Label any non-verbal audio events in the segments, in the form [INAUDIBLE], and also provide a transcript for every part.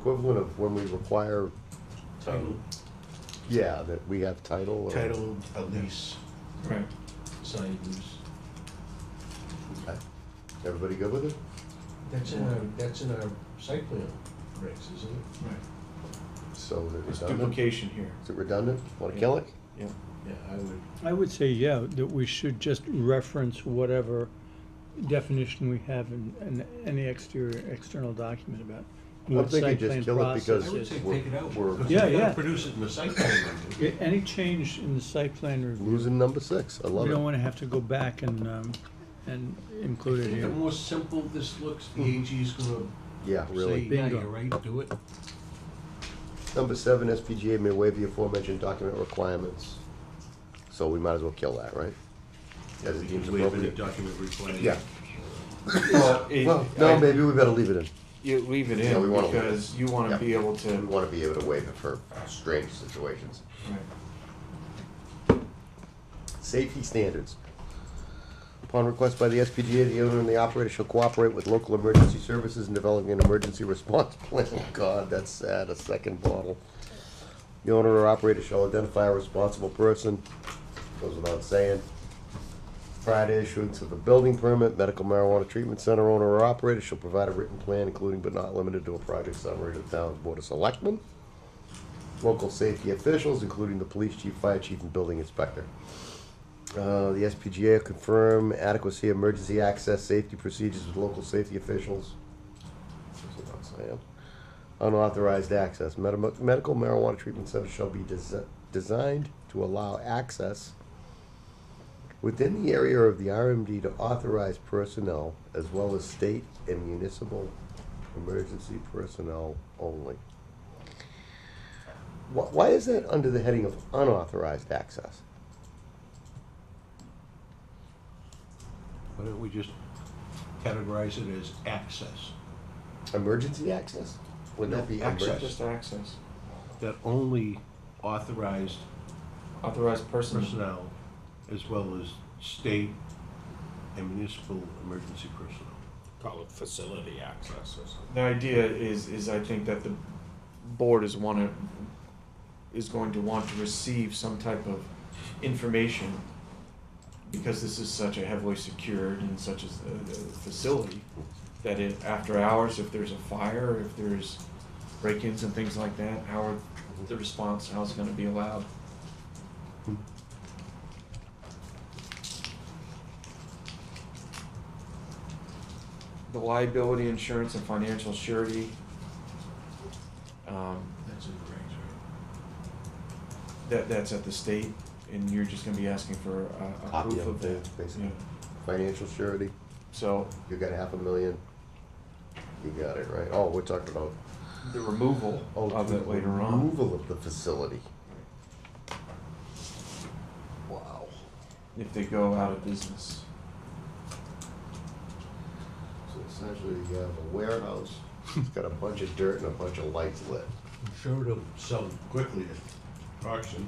equivalent of when we require, title, yeah, that we have title or? title, a lease, Right. signed lease. Okay. Everybody good with it? That's in our, that's in our site plan regs, isn't it? Right. So is it There's redundant? duplication here. Is it redundant? Want to kill it? Yeah. Yeah, I would, I would say, yeah, that we should just reference whatever definition we have in, in any exterior, external document about I'm what thinking site just plan kill it process because I would is. say we're- take it out. we're- because Yeah, you gotta yeah. Produce it in the site plan. review. A- Any change in the site plan review, Losing number six, I we love don't it. wanna have to go back and, um, and I include it think the here. more simple this looks, the AG's gonna Yeah, say, really. yeah, Bingo. you're right, do it. Number seven, SPGA may waive the aforementioned document requirements. So we might as well kill that, right? As it deems Waive any appropriate. document requirement. Yeah. Well, it- Well, no, I- maybe we better leave it in. You leave it Yeah, we in wanna- because you wanna Yeah. be able to. We want to be able to waive it for strange situations. Right. Safety standards. Upon request by the SPGA, the owner and the operator shall cooperate with local emergency services in developing an emergency response [LAUGHS] plan. God, that's sad, a second bottle. The owner or operator shall identify a responsible person, goes without saying. Prior to issuance of a building permit, medical marijuana treatment center owner or operator shall provide a written plan, including but not limited to a project summary to the town's board of selectmen, local safety officials, including the police chief, fire chief, and building inspector. Uh, the SPGA will confirm adequacy of emergency access safety procedures with local safety officials. That's what I'm saying. Unauthorized access. Medi- Medical marijuana treatment center shall be desi- designed to allow access within the area of the RMD to authorized personnel as well as state and municipal emergency personnel only. Wh- Why is that under the heading of unauthorized access? Why don't we just categorize it as access, Emergency access? Wouldn't that be No, access. emergency? Just access. that only authorized Authorized person. personnel as well as state and municipal emergency personnel. call it facility access or something. The idea is, is I think that the board is wanna, is going to want to receive some type of information because this is such a heavily secured and such a, a facility that if, after hours, if there's a fire, if there's break-ins and things like that, how are the response, how's it gonna be allowed? The liability insurance and financial surety. Um, That's in the regs, right? that, that's at the state and you're just gonna be asking for a, a Copy proof of of the- that. basically. Yeah. Financial surety, So you got half a million. You got it, right? Oh, we're talking about. the removal oh, of the it later on, Removal of the facility. Wow. if they go out of business. So essentially, you have a warehouse, [LAUGHS] it's got a bunch of dirt and a bunch of lights lit. I'm sure it'll sell quickly at auction.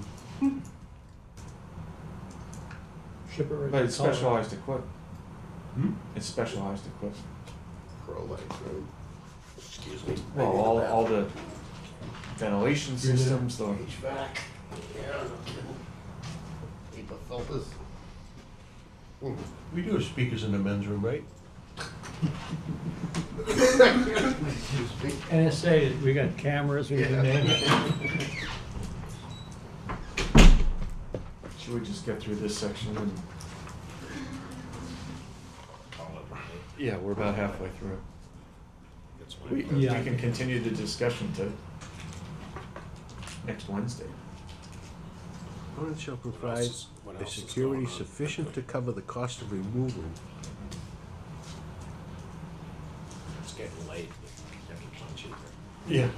Shipper But it's color. specialized equipment. Hmm? It's specialized equipment. Pro lights, right? Excuse me. Well, all, all the ventilation You're the- systems, the, HVAC. Yeah, no kidding. Paper filters. Hmm. We do have speakers in the men's room, right? Excuse me. NSA, we got cameras, we can name it. should we just get through this section and? Call it really. Yeah, we're about halfway through. It's my We, we Yeah. can continue the discussion to next Wednesday. Opponent shall What else provide is- what a else is security going on? sufficient to cover the cost of removal. It's getting late. Get it done cheaper. Yeah.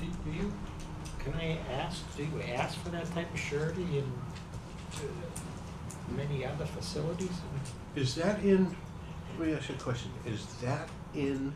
Do do you, can I ask, do you ask for that type of surety in uh, many other facilities? Is that in, let me ask you a question, is that in